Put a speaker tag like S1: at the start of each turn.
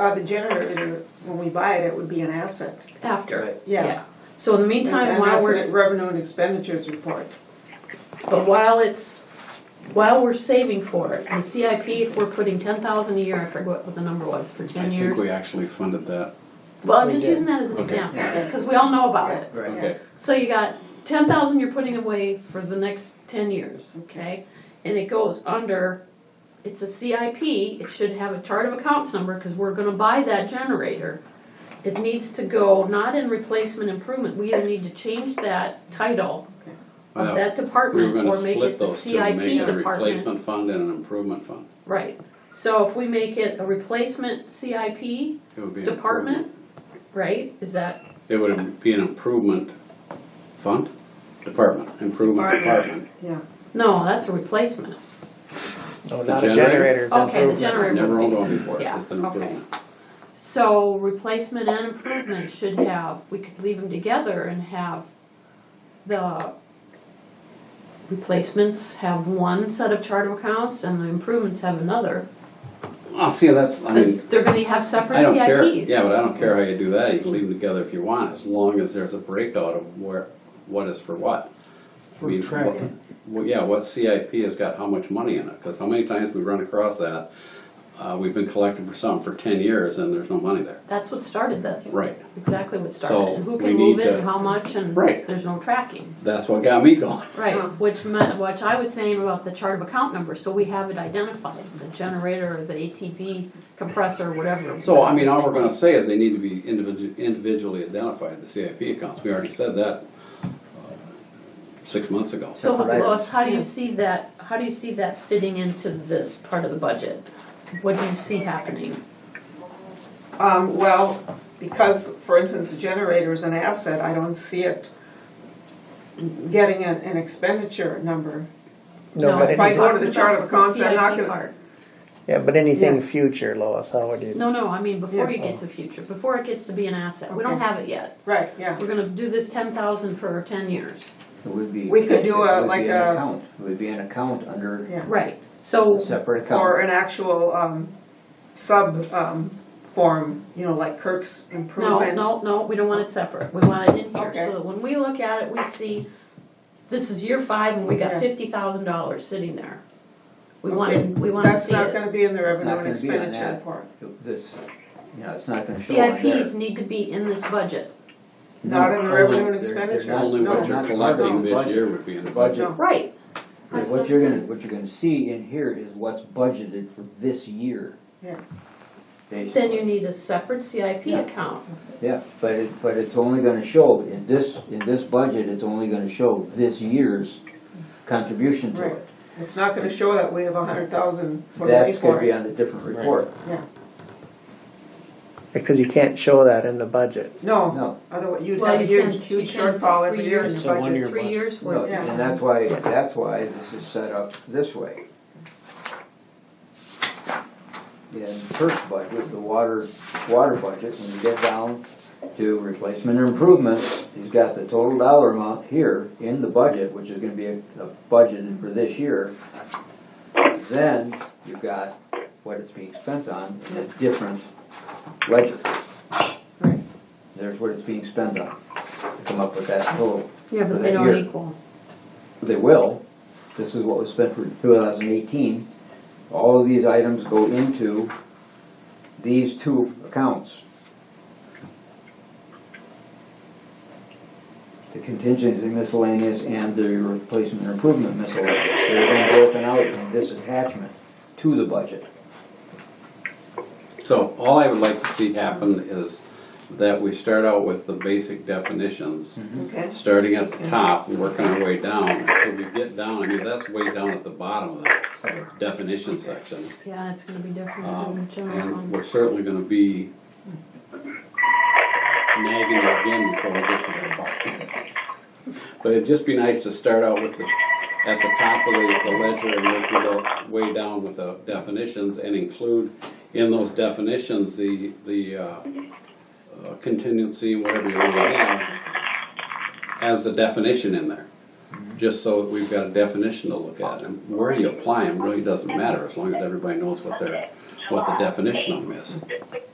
S1: Uh, the generator, when we buy it, it would be an asset.
S2: after.
S3: Right.
S1: Yeah.
S2: So in the
S1: And
S2: meantime,
S1: and
S2: while
S1: that's
S2: we're
S1: a revenue and expenditures report.
S2: But while it's, while we're saving for it, the CIP, if we're putting ten thousand a year, I forget what the number was, for
S4: I
S2: ten
S4: think
S2: years.
S4: we actually funded that.
S2: Well, I'm
S3: We
S2: just
S3: did.
S2: using that as an
S4: Okay.
S2: example, because we all know about it.
S3: Right.
S1: Yeah.
S4: Okay.
S2: So you got ten thousand you're putting away for the next ten years, okay? And it goes under, it's a CIP, it should have a chart of accounts number, because we're gonna buy that generator. It needs to go not in replacement improvement, we either need to change that title of
S4: Well,
S2: that
S4: We were
S2: department
S4: gonna
S2: or make
S4: split
S2: it the
S4: those two, make
S2: CIP
S4: a
S2: department.
S4: replacement fund and an improvement fund.
S2: Right, so if we make it a replacement CIP
S4: It would be an
S2: department,
S4: improvement-
S2: right, is that,
S4: It would be an improvement fund, department, improvement department.
S1: Yeah.
S2: no, that's a replacement.
S4: The
S3: No, Oh, not a
S4: generator?
S3: generator, it's an
S2: Okay, the
S3: improvement.
S2: generator.
S4: Never owned one before,
S2: Yeah,
S4: it's an
S1: okay.
S4: improvement.
S2: So replacement and improvement should have, we could leave them together and have the replacements have one set of chart of accounts and the improvements have another.
S4: Well, see, that's, I
S2: Because
S4: mean,
S2: they're gonna have separate
S4: I don't care,
S2: CIPs.
S4: yeah, but I don't care how you do that, you can leave them together if you want, as long as there's a breakout of where, what is for what. I mean,
S3: tracking.
S4: what- Well, yeah, what CIP has got how much money in it, cause how many times we run across that, uh, we've been collecting for something for ten years and there's no money there.
S2: That's what started this.
S4: Right,
S2: Exactly what
S4: So
S2: started, and who
S4: we
S2: can move
S4: need
S2: it,
S4: to-
S2: and how much, and
S4: Right.
S2: there's no tracking.
S4: that's what got me going.
S2: Right,
S1: Huh.
S2: which meant, which I was saying about the chart of account number, so we have it identified, the generator, or the ATV compressor, whatever.
S4: So, I mean, all we're gonna say is they need to be individu- individually identified, the CIP accounts, we already said that uh, six months ago.
S2: So
S3: Separate items.
S2: Lois, how do you see that, how do you see that fitting into this part of the budget? What do you see happening?
S1: Um, well, because, for instance, the generator is an asset, I don't see it getting an, an expenditure number.
S3: No, but
S1: if I
S3: anything,
S1: go to the chart of accounts, I'm not
S2: CIP
S1: gonna-
S2: part.
S3: yeah, but anything
S1: Yeah.
S3: future, Lois, how would you?
S2: No, no, I mean, before
S1: Yeah.
S2: you get to future, before it gets to be an asset, we don't
S1: Okay.
S2: have it yet,
S1: Right, yeah.
S2: we're gonna do this ten thousand for ten years.
S5: It would be.
S1: We could do a-
S5: it would be
S1: like
S5: an
S1: a-
S5: account. It would be an account under
S1: Yeah.
S2: Right, so
S5: a separate account.
S1: Or an actual, um, sub, um, form, you know, like Kirk's
S2: No,
S1: improvement.
S2: no, no, we don't want it separate, we want it in here,
S1: Okay.
S2: so that when we look at it, we see, this is year five, and we
S1: Yeah.
S2: got fifty thousand dollars sitting there. We
S1: Okay.
S2: want, we wanna
S1: That's
S2: see
S1: not
S2: it.
S1: gonna be in the
S5: It's
S1: revenue
S5: not
S1: and
S5: gonna be on
S1: expenditure
S5: that.
S1: report.
S5: This, yeah, it's not gonna show on there.
S2: CIPs need to be in this budget.
S1: Not in the revenue and
S5: They're- they're
S1: expenditures,
S5: not-
S4: Only
S1: no.
S4: what
S5: they're
S4: you're
S5: not
S4: collecting
S5: part of
S4: this
S5: the
S4: year
S5: budget.
S4: would be in the budget.
S5: Budget.
S1: No.
S2: Right.
S5: But
S2: That's
S5: What
S2: I'm
S5: you're gonna,
S2: saying.
S5: what you're gonna see in here is what's budgeted for this year.
S1: Yeah.
S5: Basically.
S2: Then you need a separate CIP
S5: Yeah.
S2: account,
S5: Yeah, but it, but it's only gonna show, in this, in this budget, it's only gonna show this year's contribution to
S1: Right.
S5: it.
S1: It's not gonna show that we have a hundred thousand for the
S5: That's gonna
S1: report.
S5: be on the different report.
S1: Yeah,
S3: Because you can't show that in the budget.
S1: no,
S5: No.
S1: otherwise you'd
S2: Well,
S1: have a
S2: you
S1: huge,
S2: can-
S1: huge
S2: you can
S1: shortfall every
S2: three
S1: year in
S2: years.
S1: the
S6: It's a
S1: budget.
S6: one-year
S2: three
S6: budget.
S2: years
S5: No,
S2: worth.
S1: Yeah.
S5: And that's why, that's why this is set up this way. In the first budget, the water, water budget, when you get down to replacement and improvement, he's got the total dollar amount here in the budget, which is gonna be a- a budgeted for this year. Then you've got what it's being spent on in a different ledger.
S1: Right.
S5: There's what it's being spent on, to come up with that total.
S2: Yeah,
S5: for
S2: but they
S5: that
S2: don't
S5: year.
S2: equal.
S5: They will. This is what was spent for 2018. All of these items go into these two accounts. The contingency miscellaneous and the replacement and improvement miscellaneous. They're then broken out in this attachment to the budget.
S4: So all I would like to see happen is that we start out with the basic definitions,
S2: Mm-hmm.
S1: Okay,
S4: starting at the top and working our way down. So we get down, I mean, that's way down at the bottom of the definition section.
S2: Yeah, it's gonna be different than
S4: Um,
S2: the general
S4: And
S2: one.
S4: we're certainly gonna be nagging again before we get to that bottom. But it'd just be nice to start out with the, at the top of the the ledger and work your way down with the definitions and include in those definitions the, the uh, uh, contingency, whatever you want to have, as a definition in there. Just so that we've got a definition to look at. And where you apply them really doesn't matter as long as everybody knows what their, what the definition of them is.